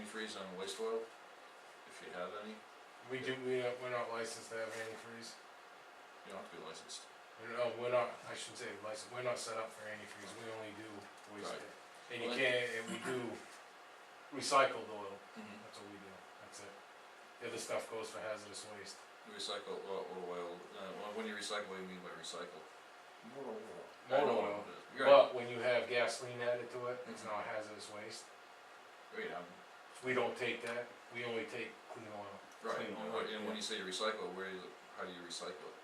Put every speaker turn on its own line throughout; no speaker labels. antifreeze on waste oil, if you have any,
We do, we, don't- we're not licensed to have antifreeze.
you don't have to be licensed.
We're, no, we're not, I should say licensed, we're not set up for antifreeze, we only do waste
Right.
oil. And you
Well,
can't, and we do recycled oil,
Mm-hmm.
that's what we do, that's it. The other stuff goes for hazardous waste.
Recycle, oil, oil, uh, well, when you recycle, what do you mean by recycle? Motor oil. I
Motor
know
oil.
what it is. You're right,
But when you have gasoline added to it, it's
Mhm.
not hazardous waste.
Right, um, I'm-
We don't take that, we only take clean oil.
right,
Clean
and
oil,
what- and when
yeah.
you say recycle, where is, it- how do you recycle it?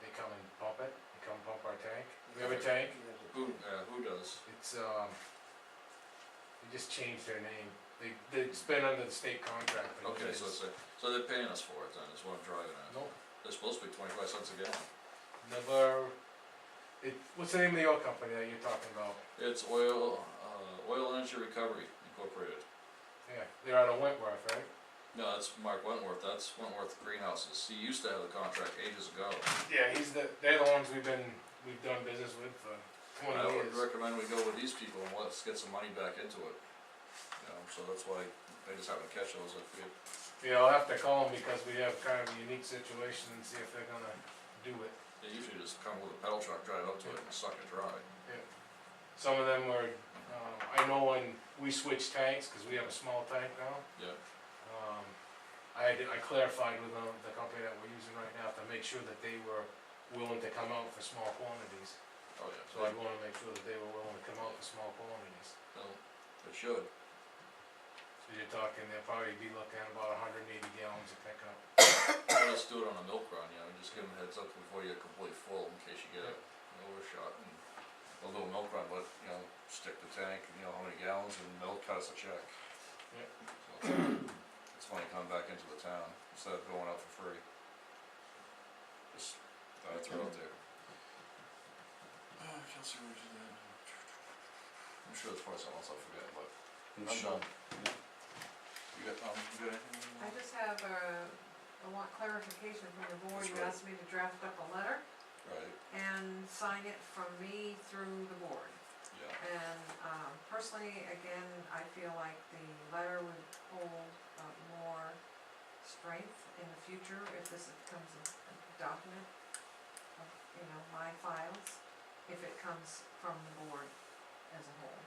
They come and pump it, they come pump our tank. We have a tank,
Who, uh, who does?
it's, um, they just changed their name. They, they spend under the state contract. but it
Okay, so it's,
is-
a- so they're paying us for it then, is what I'm driving at.
Nope,
They're supposed to be twenty-five cents a gallon.
never, it, what's the name of the oil company that you're talking about?
It's oil, uh, Oil Energy Recovery Incorporated.
Yeah, they're out of Wentworth, right?
No, that's Mark Wentworth, that's Wentworth Greenhouses, he used to have the contract ages ago.
Yeah, he's the, they're the ones we've been, we've done business with for
I
twenty
would
years.
recommend we go with these people and let's get some money back into it. You know, so that's why I just haven't catch those if we,
Yeah, I'll have to call them because we have kind of a unique situation and see if they're gonna do it.
they usually just come with a pedal truck, drive up to it and suck it dry.
Some of them were, um, I know when we switched tanks, cause we have a small tank now,
Yeah,
um, I had, I clarified with um, the, the company that we're using right now to make sure that they were willing to come out for small quantities.
oh yeah.
So I wanna make sure that they were willing to come out for small quantities.
Well, It should,
So you're talking, they'll probably be looking at about hundred and eighty gallons of pickup.
let's do it on a milk run, you know, just give them a heads up before you're completely full in case you get
Yeah.
an overshot and a little milk run, but, you know, stick the tank, you know, how many gallons and they'll cut us a check.
Yeah.
So, It's funny coming back into the town instead of going out for free. Just thought I'd throw it out there. Uh, Kelsey, where's your dad? I'm sure there's probably something else I forget, but I'm done. You got, um, you got anything?
I just have uh, I want clarification from the board,
That's
you
right.
asked me to draft up a letter
Right,
and sign it from me through the board.
yeah.
And, um, personally, again, I feel like the letter would hold uh, more strength in the future if this becomes a a document of, you know, my files, if it comes from the board as a whole.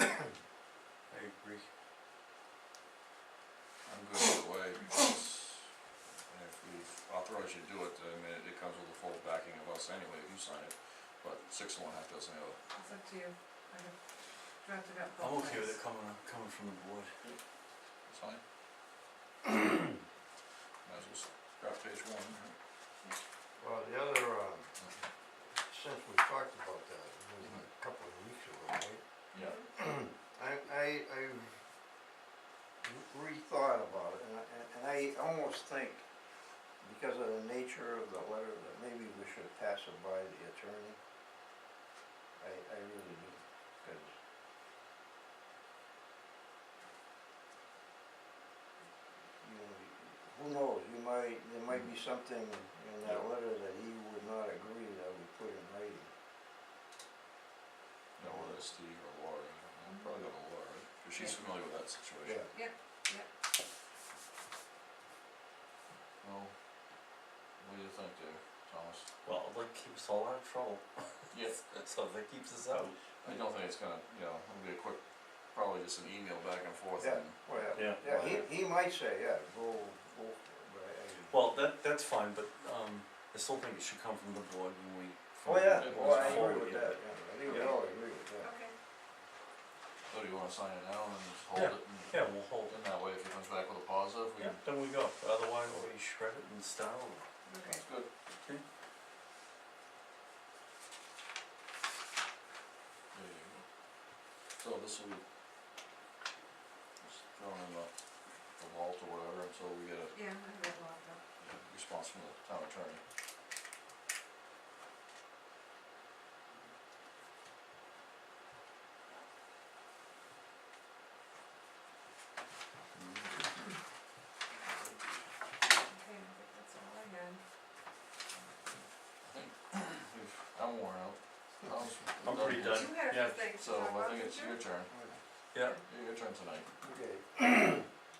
I agree. I'm good either way, because and if we authorize you to do it, I mean, it- it comes with the full backing of us anyway, if you sign it, but six of one, half dozen of the other.
It's up to you, I have drafted up
I'm
both
okay with
ways.
it coming, coming from the board.
It's fine. Might as well scrap page one, right?
Well, the other, um, since we talked about that, it was a
Mm-hmm.
couple of weeks ago, right?
Yeah.
I, I, I rethought about it, and I, and I almost think, because of the nature of the letter, that maybe we should pass it by the attorney. I, I really do, cause. You know, who knows, you might, there might be something in that
Yeah.
letter that he would not agree that we put in writing.
No, whether it's Steve or Laura, I don't know, probably go to Laura, right? 'Cause she's
Yeah.
familiar with that situation. Well, what do you think there, Thomas?
Well, that keeps all out of trouble,
Yeah.
so that keeps us out.
I don't think it's gonna, you know, it'll be a quick, probably just an email back and forth
Yeah.
and
Well,
Yeah.
Yeah, he, he might say, yeah, go, go, for it, but I, I.
Well, that, that's fine, but, um, I still think it should come from the board when we.
Oh, yeah,
it
well,
was
I agree
forward,
with
yeah.
that, yeah, I think we
Yeah.
all agree with that.
Okay,
So do you wanna sign it now and just hold it? and-
Yeah, we'll hold
And
it.
that way, if it comes back with a positive, we
Yeah,
can,
then we go, otherwise we shred it and style
okay.
that's good.
Okay.
There you go. So this will be just thrown in the, the vault or whatever until we get a
Yeah, I have that locked up.
a response from the town attorney.
Okay, I think that's all I had.
I think we've, I'm worn out. Tom's-
Hmm. I'm pretty done.
You had a
Yeah,
few things to
So
talk
I
about,
think
did
it's
you?
your turn,
Yeah,
your turn tonight.
Okay,